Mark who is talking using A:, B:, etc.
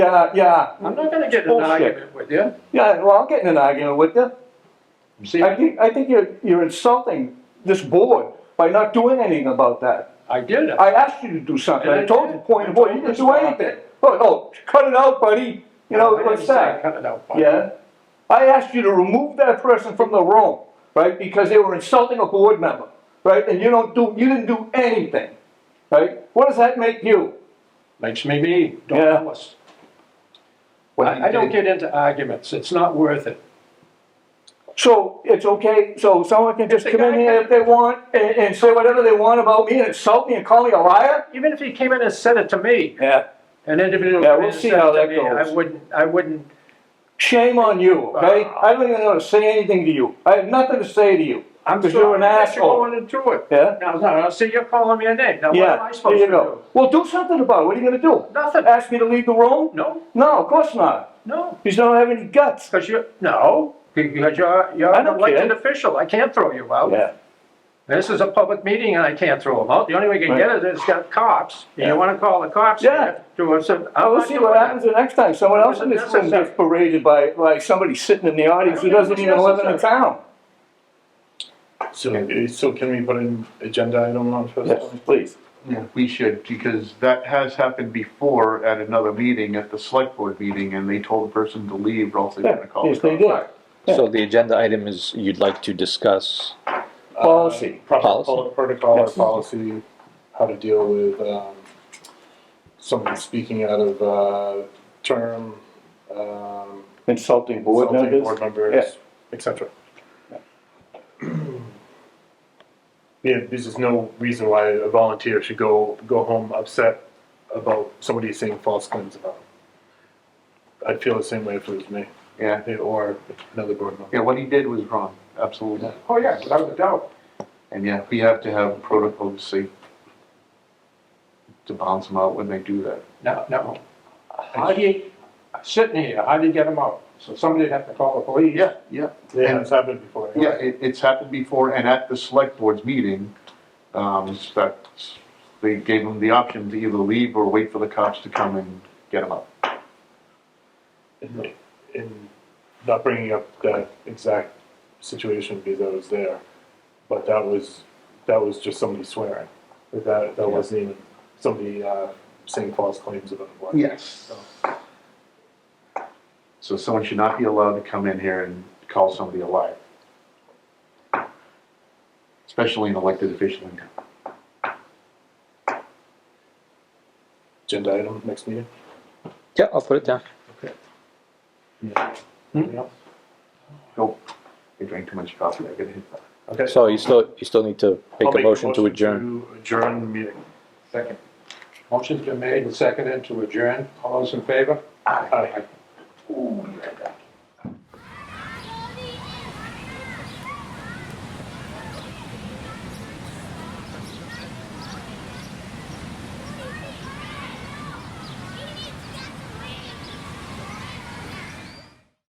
A: Yeah, yeah,
B: I'm not gonna get in an
A: Bullshit.
B: argument with you.
A: yeah, well, I'll get in an argument with you.
B: See,
A: I think, I think you're, you're insulting this board by not doing anything about that.
B: I did it.
A: I asked you to do something, I told you, point of order, you didn't do anything. Oh, no, cut it out, buddy, you know,
B: I
A: what's
B: didn't say I
A: that?
B: Cut it out, Bob.
A: Yeah? I asked you to remove that person from the room, right, because they were insulting a board member, right, and you don't do, you didn't do anything, right? What does that make you?
B: Makes me me, don't
A: Yeah.
B: tell us. I, I don't get into arguments, it's not worth it.
A: So it's okay, so someone can just
B: The
A: come in
B: guy
A: here
B: can-
A: if they want and, and say whatever they want about me and insult me and call me a liar?
B: Even if he came in and said it to me,
A: Yeah.
B: an individual.
A: Yeah,
B: came in
A: we'll
B: and
A: see
B: said it
A: how
B: to
A: that
B: me, I
A: goes.
B: wouldn't, I wouldn't,
A: Shame on you, okay? I don't even know how to say anything to you. I have nothing to say to you.
B: I'm
A: Because you're
B: sorry
A: an
B: that you're
A: asshole.
B: going into it.
A: Yeah.
B: Now, now, see, you're calling me a name, now what am
A: Yeah,
B: I
A: there
B: supposed
A: you
B: to do?
A: go. Uh, Well, do something about it. What are you gonna do?
B: Nothing.
A: Ask me to leave the room?
B: No,
A: No, of course not.
B: no,
A: You just don't have any guts.
B: because you're, no, because you're, you're
A: I
B: an
A: don't
B: elected
A: care.
B: official, I can't throw you out. This is a public meeting and I can't throw them out. The only way you can get it is got cops. And
A: Yeah.
B: you wanna call the cops?
A: Yeah. Uh,
B: here To us, and I'm
A: We'll
B: not
A: see
B: doing
A: what
B: that.
A: happens the next time. Someone else in this room
B: Unnecessary.
A: gets berated by, by somebody sitting in the audience who
B: I don't
A: doesn't
B: think it's
A: even live in the
B: necessary.
A: town.
C: So, eh, so can we put an agenda item on first?
A: Yes, please.
D: Yeah, we should, because that has happened before at another meeting, at the select board meeting, and they told the person to leave, or else they were gonna call the
A: Yes, they
D: cops.
A: did.
E: So the agenda item is you'd like to discuss,
A: Policy.
C: Uh, Proper
E: Policy.
C: pol- protocol or
A: Yes.
C: policy, how to deal with, um, someone speaking out of, uh, term, um,
A: Uh, Insulting board
C: insulting
A: members.
C: Board
A: Yeah.
C: members, et cetera. Yeah, there's just no reason why a volunteer should go, go home upset about somebody saying false claims about him. I'd feel the same way if it was me,
D: Yeah,
C: eh, or another board member.
D: yeah, what he did was wrong, absolutely.
B: Oh, yeah, without a doubt.
D: And yeah, we have to have protocol to see, to bounce them out when they do that.
B: No, no. How do you, sitting here, how do you get them out? So somebody'd have to call the police.
D: Yeah, yeah.
C: Yeah, it's happened before.
D: Yeah, it, it's happened before, and at the select board's meeting, um, that, they gave them the option to either leave or wait for the cops to come and get them out.
C: in, in not bringing up that exact situation because I was there, but that was that was just somebody swearing. Like that that wasn't even somebody uh, saying false claims about what.
D: Yes. So someone should not be allowed to come in here and call somebody a liar. Especially an elected official in town.
C: Agenda item next meeting.
E: yeah, I'll put it down. Hmm.
C: Yeah.
D: Nope, I drank too much coffee, I gotta hit that.
C: Okay.
E: So you still, you still need to
C: I'll
E: make a motion to adjourn.
C: to adjourn the meeting.
B: Second. Motion's been made and seconded to adjourn. All those in favor?
C: Aye.